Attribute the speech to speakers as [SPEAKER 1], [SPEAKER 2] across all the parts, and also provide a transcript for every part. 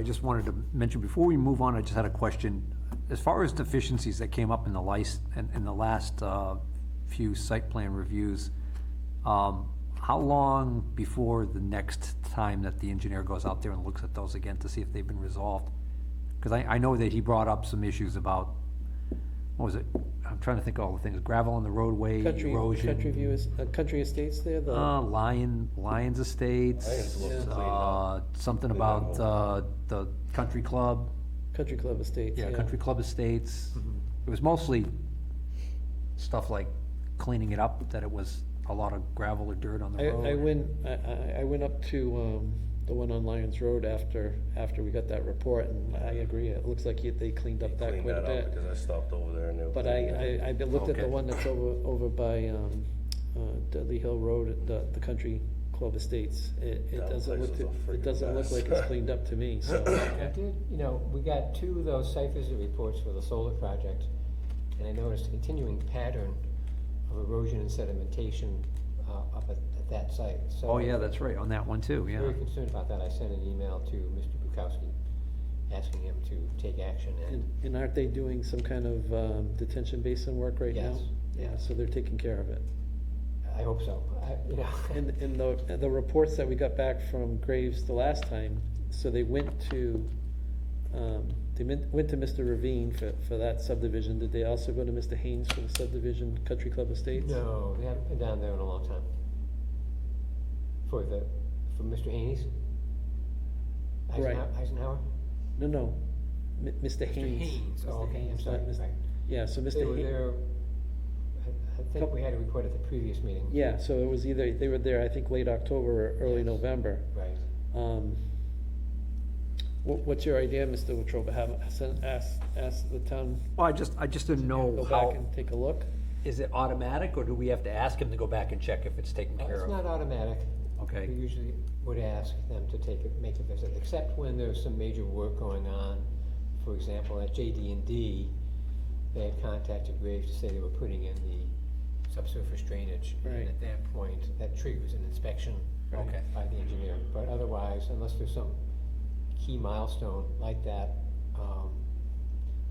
[SPEAKER 1] I just wanted to mention, before we move on, I just had a question. As far as deficiencies that came up in the lice, in, in the last, uh, few site plan reviews, um, how long before the next time that the engineer goes out there and looks at those again to see if they've been resolved? Cause I, I know that he brought up some issues about, what was it? I'm trying to think of all the things, gravel on the roadway,
[SPEAKER 2] Country,
[SPEAKER 1] erosion.
[SPEAKER 2] country view is, uh, country estates there, the,
[SPEAKER 1] Uh, Lion, Lions Estates.
[SPEAKER 3] Lions look cleaned
[SPEAKER 1] uh,
[SPEAKER 3] up.
[SPEAKER 1] Something
[SPEAKER 3] Cleaned up
[SPEAKER 1] about,
[SPEAKER 3] a lot.
[SPEAKER 1] uh, the country club,
[SPEAKER 2] country club estates, yeah. Mm-hmm.
[SPEAKER 1] yeah, country club estates. It was mostly stuff like cleaning it up, that it was a lot of gravel or dirt on the
[SPEAKER 2] I,
[SPEAKER 1] road.
[SPEAKER 2] I went, I, I, I went up to, um, the one on Lions Road after, after we got that report, and I agree, it looks like he- they cleaned up that
[SPEAKER 3] Cleaned
[SPEAKER 2] quite a
[SPEAKER 3] that
[SPEAKER 2] bit.
[SPEAKER 3] up because I stopped over there and they were.
[SPEAKER 2] But
[SPEAKER 3] cleaning it.
[SPEAKER 2] I, I, I been- looked at the
[SPEAKER 1] Okay.
[SPEAKER 2] one that's over, over by, um, uh, Dudley Hill Road, the, the Country Club Estates. It, it
[SPEAKER 3] That
[SPEAKER 2] doesn't
[SPEAKER 3] place
[SPEAKER 2] look,
[SPEAKER 3] is a
[SPEAKER 2] to- it
[SPEAKER 3] friggin'
[SPEAKER 2] doesn't look
[SPEAKER 3] mess.
[SPEAKER 2] like it's cleaned up to me, so.
[SPEAKER 4] I did, you know, we got two of those site visit reports for the solar project, and I noticed a continuing pattern of erosion and sedimentation uh, up at, at that site, so.
[SPEAKER 1] Oh, yeah, that's right, on that one too,
[SPEAKER 4] I was
[SPEAKER 1] yeah.
[SPEAKER 4] Very concerned about that, I sent an email to Mr. Bukowski, asking him to take action,
[SPEAKER 2] And,
[SPEAKER 4] and
[SPEAKER 2] and aren't they doing some kind of, um, detention basin work right now?
[SPEAKER 4] Yes,
[SPEAKER 2] Yeah,
[SPEAKER 4] yes.
[SPEAKER 2] so they're taking care of it.
[SPEAKER 4] I hope so, I, you know.
[SPEAKER 2] And, and the, the reports that we got back from Graves the last time, so they went to, um, they went, went to Mr. Ravine for, for that subdivision. Did they also go to Mr. Haynes for the subdivision, Country Club Estates?
[SPEAKER 4] No, they haven't been down there in a long time. For the, for Mr. Haney's?
[SPEAKER 2] Right.
[SPEAKER 4] Eisenhower- Eisenhower?
[SPEAKER 2] No, no, M- Mr. Haynes.
[SPEAKER 4] Oh, okay, I'm
[SPEAKER 2] Haynes,
[SPEAKER 4] sorry,
[SPEAKER 2] not Mr.
[SPEAKER 4] right.
[SPEAKER 2] Yeah, so
[SPEAKER 4] They
[SPEAKER 2] Mr.
[SPEAKER 4] were
[SPEAKER 2] Haynes,
[SPEAKER 4] there, I, I think we had a report at the previous meeting.
[SPEAKER 2] yeah, so it was either, they were there, I think, late October or early
[SPEAKER 4] Yes.
[SPEAKER 2] November.
[SPEAKER 4] Right.
[SPEAKER 2] Um, what, what's your idea, Mr. Wetruba? Have, send- ask, ask the town,
[SPEAKER 1] Well, I just, I just didn't
[SPEAKER 2] go
[SPEAKER 1] know
[SPEAKER 2] back
[SPEAKER 1] how,
[SPEAKER 2] and take a look?
[SPEAKER 1] is it automatic, or do we have to ask him to go back and check if it's taken
[SPEAKER 4] Uh,
[SPEAKER 1] care
[SPEAKER 4] It's
[SPEAKER 1] of?
[SPEAKER 4] not automatic.
[SPEAKER 1] Okay.
[SPEAKER 4] We usually would ask them to take, a- make a visit, except when there's some major work going on. For example, at jd and D, they had contacted Graves to say they were putting in the subsurface drainage.
[SPEAKER 2] Right.
[SPEAKER 4] And at that point, that triggers an inspection
[SPEAKER 2] Right.
[SPEAKER 1] Okay.
[SPEAKER 4] by the engineer. But otherwise, unless there's some key milestone like that, um,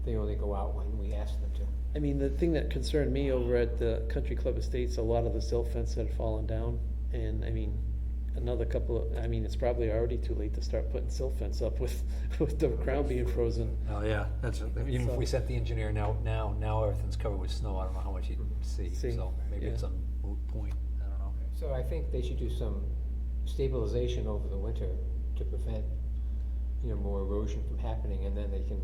[SPEAKER 4] they only go out when we ask them to.
[SPEAKER 2] I mean, the thing that concerned me over at the Country Club Estates, a lot of the silt fence had fallen down, and, I mean, another couple of, I mean, it's probably already too late to start putting silt fence up with, with the ground being frozen.
[SPEAKER 1] Oh, yeah, that's, even if
[SPEAKER 5] uh,
[SPEAKER 1] we
[SPEAKER 2] So-
[SPEAKER 1] sent the engineer now, now, now everything's covered with snow, I don't know how much he'd see,
[SPEAKER 2] See,
[SPEAKER 1] so maybe
[SPEAKER 2] yeah.
[SPEAKER 1] it's a moot point, I don't know.
[SPEAKER 4] So I think they should do some stabilization over the winter to prevent, you know, more erosion from happening, and then they can,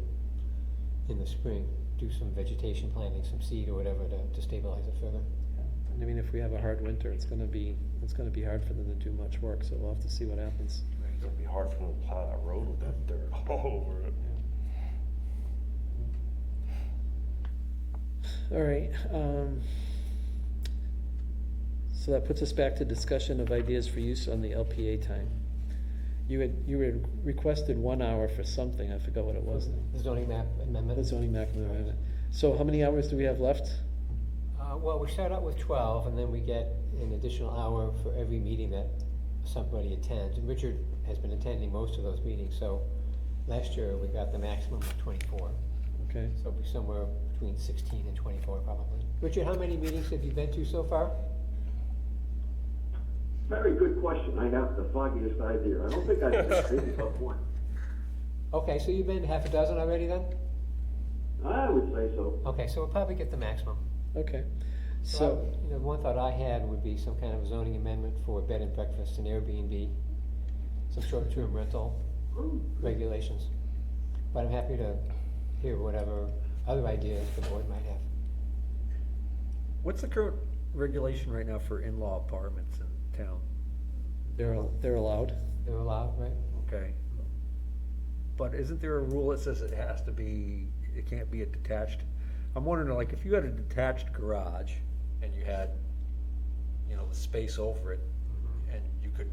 [SPEAKER 4] in the spring, do some vegetation planting, some seed or whatever to, to stabilize it further.
[SPEAKER 2] And I mean, if we have a hard winter, it's gonna be, it's gonna be hard for them to do much work, so we'll have to see what happens.
[SPEAKER 3] It's gonna be hard for them to plow that road with that dirt all over it.
[SPEAKER 2] All right, um, so that puts us back to discussion of ideas for use on the LPA time. You had, you had requested one hour for something, I forgot what it was.
[SPEAKER 4] The zoning map amendment.
[SPEAKER 2] The zoning map amendment. So how many hours do we have left?
[SPEAKER 4] Uh, well, we start out with twelve, and then we get an additional hour for every meeting that somebody attends. And Richard has been attending most of those meetings, so last year we got the maximum of twenty-four.
[SPEAKER 2] Okay,
[SPEAKER 4] So it'll be somewhere between sixteen and twenty-four probably. Richard, how many meetings have you been to so far?
[SPEAKER 6] Very good question. I have the foggiest idea. I don't think I can think of one.
[SPEAKER 4] Okay, so you've been to half a dozen already then?
[SPEAKER 6] I would say so.
[SPEAKER 4] Okay, so we'll probably get the maximum.
[SPEAKER 2] okay.
[SPEAKER 4] I-
[SPEAKER 2] So,
[SPEAKER 4] You know, one thought I had would be some kind of zoning amendment for bed and breakfast and Airbnb, some short-term rental regulations. But I'm happy to hear whatever other ideas the board might have.
[SPEAKER 5] What's the current regulation right now for in-law apartments in town?
[SPEAKER 2] they're, they're allowed.
[SPEAKER 4] They're allowed, right?
[SPEAKER 5] Okay. But isn't there a rule that says it has to be, it can't be a detached? I'm wondering, like, if you had a detached garage and you had, you know, the space over it,
[SPEAKER 1] Mm-hmm.
[SPEAKER 5] and you could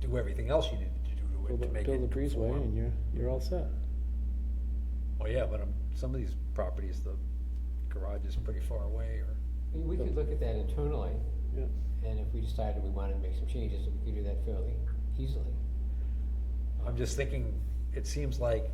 [SPEAKER 5] do everything else you needed to do to it
[SPEAKER 2] Build
[SPEAKER 5] to
[SPEAKER 2] a
[SPEAKER 5] make it
[SPEAKER 2] build a breezeway
[SPEAKER 5] conform.
[SPEAKER 2] and you're, you're all set.
[SPEAKER 5] Well, yeah, but um, some of these properties, the garage is pretty far away, or.
[SPEAKER 4] We- We could look at that internally,
[SPEAKER 2] Yeah.
[SPEAKER 4] and if we decided we wanted to make some changes, we could do that fairly easily.
[SPEAKER 5] I'm just thinking,
[SPEAKER 1] it seems like